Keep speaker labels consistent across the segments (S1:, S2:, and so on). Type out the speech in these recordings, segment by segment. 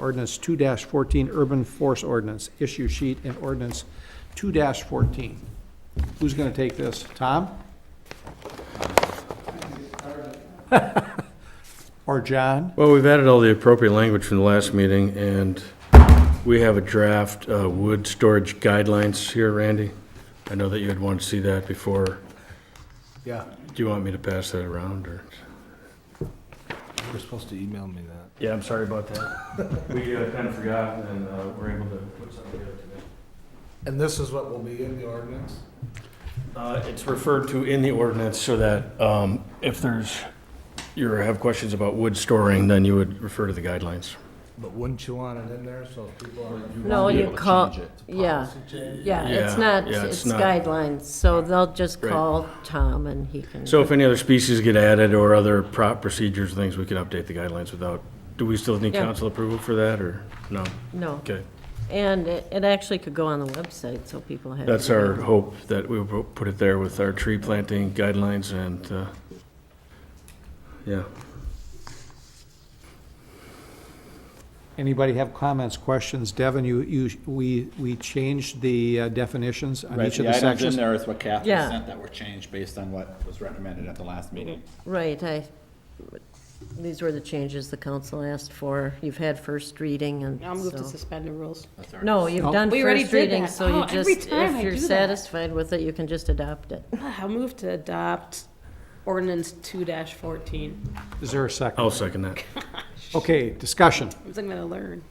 S1: Ordinance two fourteen, urban force ordinance, issue sheet and ordinance two fourteen. Who's gonna take this? Tom? Or John?
S2: Well, we've added all the appropriate language from the last meeting, and we have a draft uh, wood storage guidelines here, Randy. I know that you had wanted to see that before.
S1: Yeah.
S2: Do you want me to pass that around, or?
S3: You were supposed to email me that.
S2: Yeah, I'm sorry about that. We kind of forgot, and uh, we're able to put something together today.
S3: And this is what will be in the ordinance?
S2: Uh, It's referred to in the ordinance so that um, if there's, you have questions about wood storing, then you would refer to the guidelines.
S3: But wouldn't you want it in there so if people are?
S4: No,
S2: be
S4: you
S2: able to
S4: call,
S3: change it.
S4: yeah,
S3: Policy change.
S4: yeah, it's
S2: Yeah,
S4: not,
S2: yeah, it's
S4: it's
S2: not-
S4: guidelines, so they'll just
S2: Right.
S4: call Tom and he can.
S2: So if any other species get added or other prop procedures, things, we can update the guidelines without, do we still need
S4: Yeah.
S2: council approval for that, or no?
S4: No,
S2: Okay,
S4: and it it actually could go on the website, so people have.
S2: that's
S4: it.
S2: our hope, that we will put it there with our tree planting guidelines and, uh, yeah.
S1: Anybody have comments, questions? Devin, you, you, we, we changed the uh, definitions on
S5: Right,
S1: each of
S5: the
S1: the
S5: items in
S1: sections.
S5: there is what Kathy
S4: Yeah.
S5: sent that were changed based on what was recommended at the last meeting.
S4: Right, I, these were the changes the council asked for. You've had first reading and
S6: I'll move to
S4: so-
S6: suspend the rules.
S4: No, you've
S2: Oh.
S1: No.
S4: done
S6: We already
S4: first
S6: did
S4: reading,
S6: that.
S4: so
S6: Oh,
S4: you
S6: every
S4: just,
S6: time
S4: if
S6: I
S4: you're
S6: do that.
S4: satisfied with it, you can just adopt it.
S6: Ah, I'll move to adopt ordinance two dash fourteen.
S1: Is there a second?
S2: I'll second that. Oh.
S1: Okay, discussion.
S6: I'm gonna learn.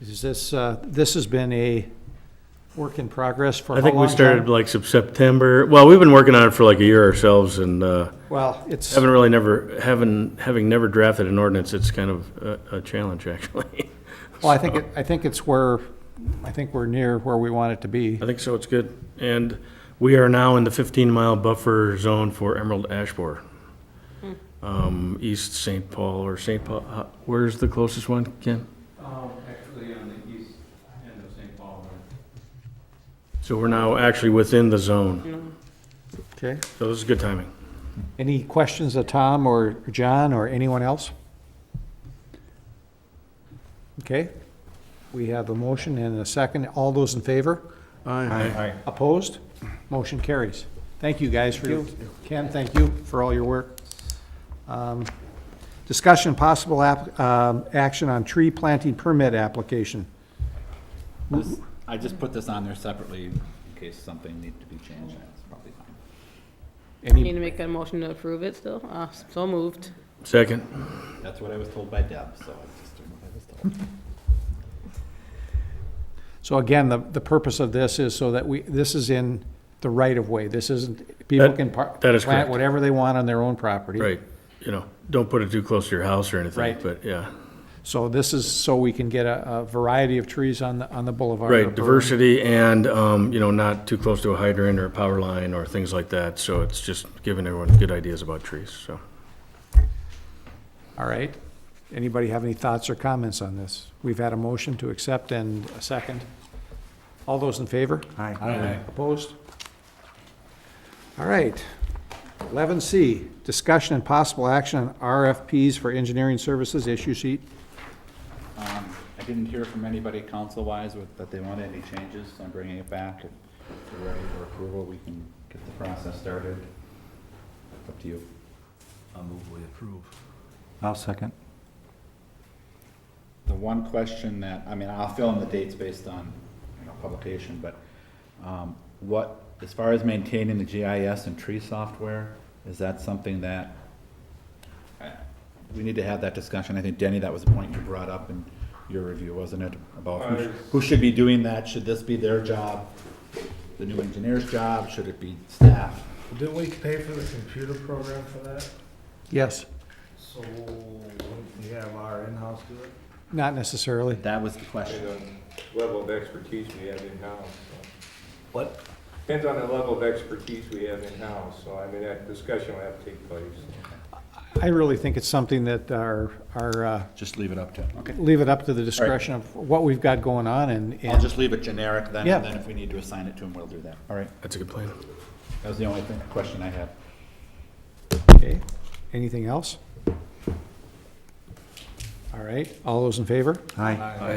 S1: Is this, uh, this has been a work in progress for
S2: I
S1: how
S2: think we
S1: long, John?
S2: started like sep- September, well, we've been working on it for like a year ourselves, and uh,
S1: Well, it's.
S2: haven't really never, having, having never drafted an ordinance, it's kind of a- a challenge, actually.
S1: Well, I think, it- I think it's where, I think we're near where we want it to be.
S2: I think so, it's good. And we are now in the 15-mile buffer zone for Emerald Ash Borer. Um, East St. Paul or St. Paul, uh, where's the closest one, Ken?
S7: Um, actually, on the east end of St. Paul,
S2: So we're now actually within the zone,
S1: Okay.
S2: so this is good timing.
S1: Any questions of Tom or John or anyone else? Okay. We have a motion and a second. All those in favor?
S2: Aye.
S1: Opposed? Motion carries. Thank you guys for, Ken, thank you for all your work. Um, Discussion possible app, um, action on tree planting permit application.
S5: This- I just put this on there separately in case something needed to be changed, that's probably fine.
S6: Need
S1: Any,
S6: to make a motion to approve it still? Uh, so moved.
S2: Second,
S5: That's what I was told by Deb, so I just doing what I was told.
S1: so again, the, the purpose of this is so that we, this is in the right of way. This isn't, people
S2: That-
S1: can par-
S2: that is
S1: plant
S2: correct.
S1: whatever they want on their own property.
S2: right, you know, don't put it too close to your house or anything,
S1: Right.
S2: but yeah.
S1: So this is so we can get a, a variety of trees on the, on the boulevard.
S2: Right,
S1: or-
S2: diversity and, um, you know, not too close to a hydrant or a power line or things like that, so it's just giving everyone good ideas about trees, so.
S1: All right. Anybody have any thoughts or comments on this? We've had a motion to accept and a second. All those in favor? Aye. Opposed? All right. Eleven C, discussion and possible action on RFPs for engineering services issue sheet.
S5: Um, I didn't hear from anybody council-wise with, that they wanted any changes, so I'm bringing it back. If you're ready for approval, we can get the process started. Up to you.
S3: I'll move we approve.
S7: I'll second.
S5: The one question that, I mean, I'll fill in the dates based on, you know, publication, but um, what, as far as maintaining the GIS and tree software, is that something that, uh, we need to have that discussion. I think, Denny, that was a point you brought up in your review, wasn't it? About who sh- who should be doing that? Should this be their job? The new engineer's job? Should it be staff?
S3: Didn't we pay for the computer program for that?
S1: Yes,
S3: So wouldn't we have our in-house do it?
S1: not necessarily.
S5: That was the question.
S7: Depends on level of expertise we have in-house. so.
S3: What?
S7: Depends on the level of expertise we have in-house, so I mean, that discussion will have to take place.
S1: I really think it's something that our, our, uh,
S5: Just leave it up to, okay.
S1: leave it up to the discretion of what we've got going on and.
S5: I'll just leave it generic then,
S1: Yeah.
S5: and then if we need to assign it to them, we'll do that. All right.
S2: That's a good plan.
S5: That was the only thing, question I had.
S1: Okay. Anything else? All right, all those in favor?
S5: Hi.